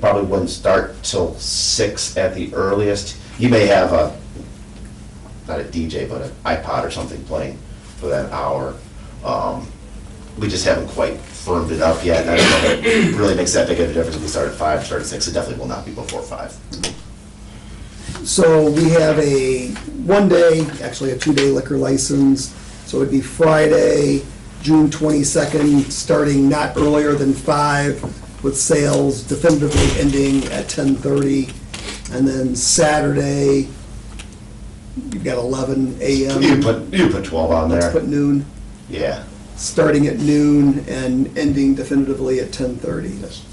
probably wouldn't start till six at the earliest. You may have a, not a DJ, but an iPod or something playing for that hour. Um, We just haven't quite firmed it up yet. I don't know if it really makes that big of a difference if we start at five, start at six. It definitely will not be before five. So we have a one-day, actually a two-day liquor license. So it'd be Friday, June 22nd, starting not earlier than five, with sales definitively ending at 10:30. And then Saturday, you've got 11 a.m. You put, you put twelve on Let's there. put noon, Yeah. starting at noon and ending definitively at 10:30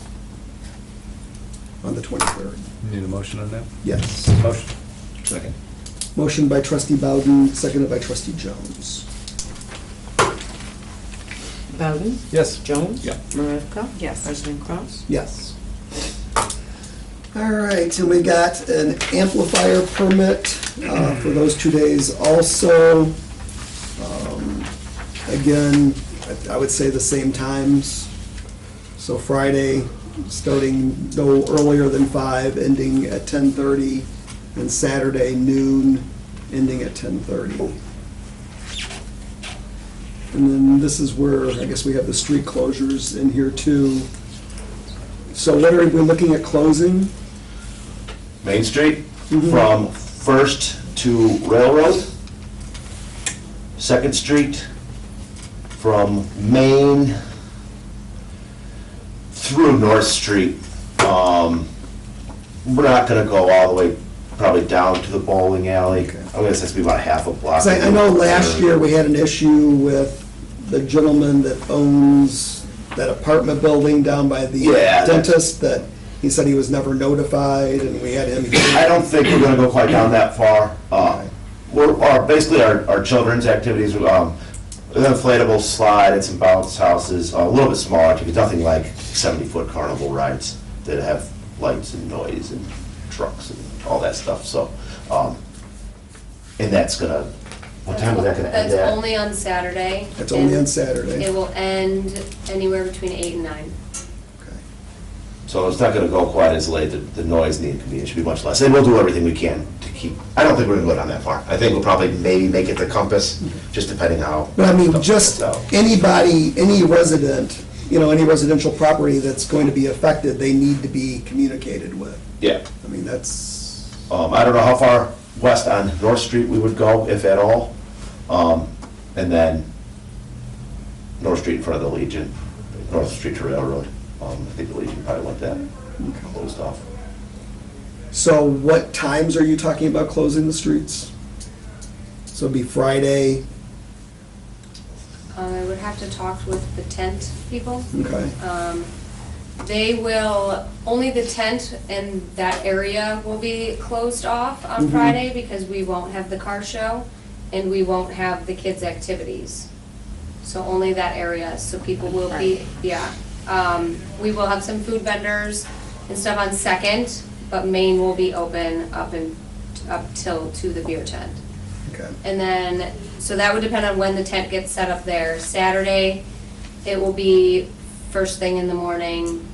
on the 23rd. Need a motion on that? Yes. Motion. Second. Motion by trustee Bowden, seconded by trustee Jones. Bowden? Yes. Jones? Yeah. Maravka? Yes. President Kraus? Yes. All right, so we got an amplifier permit uh, for those two days also. Um, Again, I- I would say the same times. So Friday, starting no earlier than five, ending at 10:30, and Saturday noon, ending at 10:30. And then this is where, I guess we have the street closures in here too. So what are we looking at closing? Main Street from First to Railroad. Second Street from Main through North Street. Um, We're not gonna go all the way, probably down to the bowling alley. Okay. I'm gonna say it's be about half a block. 'Cause I, I know last year we had an issue with the gentleman that owns that apartment building down by the Yeah. dentist that he said he was never notified and we had him. I don't think we're gonna go quite down that far. Uh, We're, our, basically, our, our children's activities, um, an inflatable slide and some bounce houses, a little bit smaller, because nothing like seventy-foot carnival rides that have lights and noise and trucks and all that stuff, so, um, and that's gonna, what time is that gonna end That's at? only on Saturday. It's only on and Saturday. It will end anywhere between eight and nine. So it's not gonna go quite as late, the, the noise and the inconvenience should be much less, and we'll do everything we can to keep, I don't think we're gonna go down that far. I think we'll probably maybe make it the compass, just depending how. But I mean, stuff just works out. anybody, any resident, you know, any residential property that's going to be affected, they need to be communicated with. Yeah, I mean, that's, um, I don't know how far west on North Street we would go, if at all. Um, and then North Street in front of the Legion, North Street to Railroad. Um, I think the Legion probably went that closed off. so what times are you talking about closing the streets? So it'd be Friday, Um, I would have to talk with the tent people. okay? Um, They will, only the tent and that area will be closed off on Mhm. Friday because we won't have the car show and we won't have the kids' activities. So only that area, so people will be, yeah. Um, We will have some food vendors and stuff on Second, but Main will be open up and, up till, to the beer tent. Okay. And then, so that would depend on when the tent gets set up there. Saturday, it will be first thing in the morning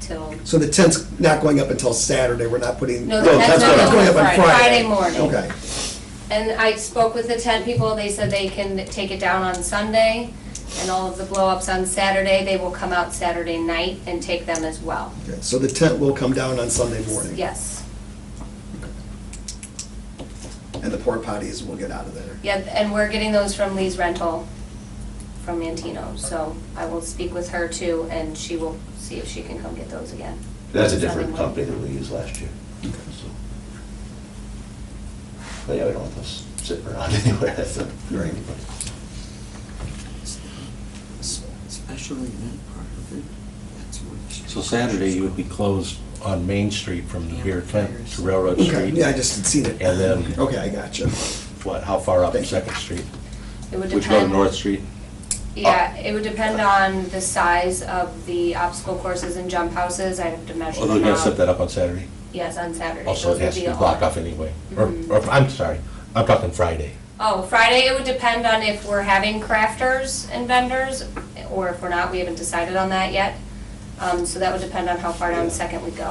till, So the tent's not going up until Saturday, we're not putting. no, the tent's tent's going not up going on up Friday. Friday morning. Okay, And I spoke with the tent people, they said they can take it down on Sunday, and all of the blow-ups on Saturday, they will come out Saturday night and take them as well. okay, so the tent will come down on Sunday morning. Yes. And the porta potties will get out of there. Yeah, and we're getting those from Lee's rental, from Mantino, so I will speak with her too, and she will see if she can come get those again. That's a different company than we used last year. so. But yeah, we don't want those sitting around anywhere, that's a. Right. Special event part of it, that's what. So Saturday, you would be closed on Main Street from the beer tent to Railroad Okay, Street? yeah, I just had seen it. And then- Okay, I got you. What, how far up Thank you. Second Street? It would Which go to depend. North Street? Yeah, it would depend on the size of the obstacle courses and jump houses. I'd have to measure Although you them gotta set out. that up on Saturday. Yes, on Saturday. Also, Those it would has to be all- blocked off anyway. Or, or, I'm sorry, I'm talking Friday. Oh, Friday, it would depend on if we're having crafters and vendors, or if we're not, we haven't decided on that yet. Um, So that would depend on how far down second we go.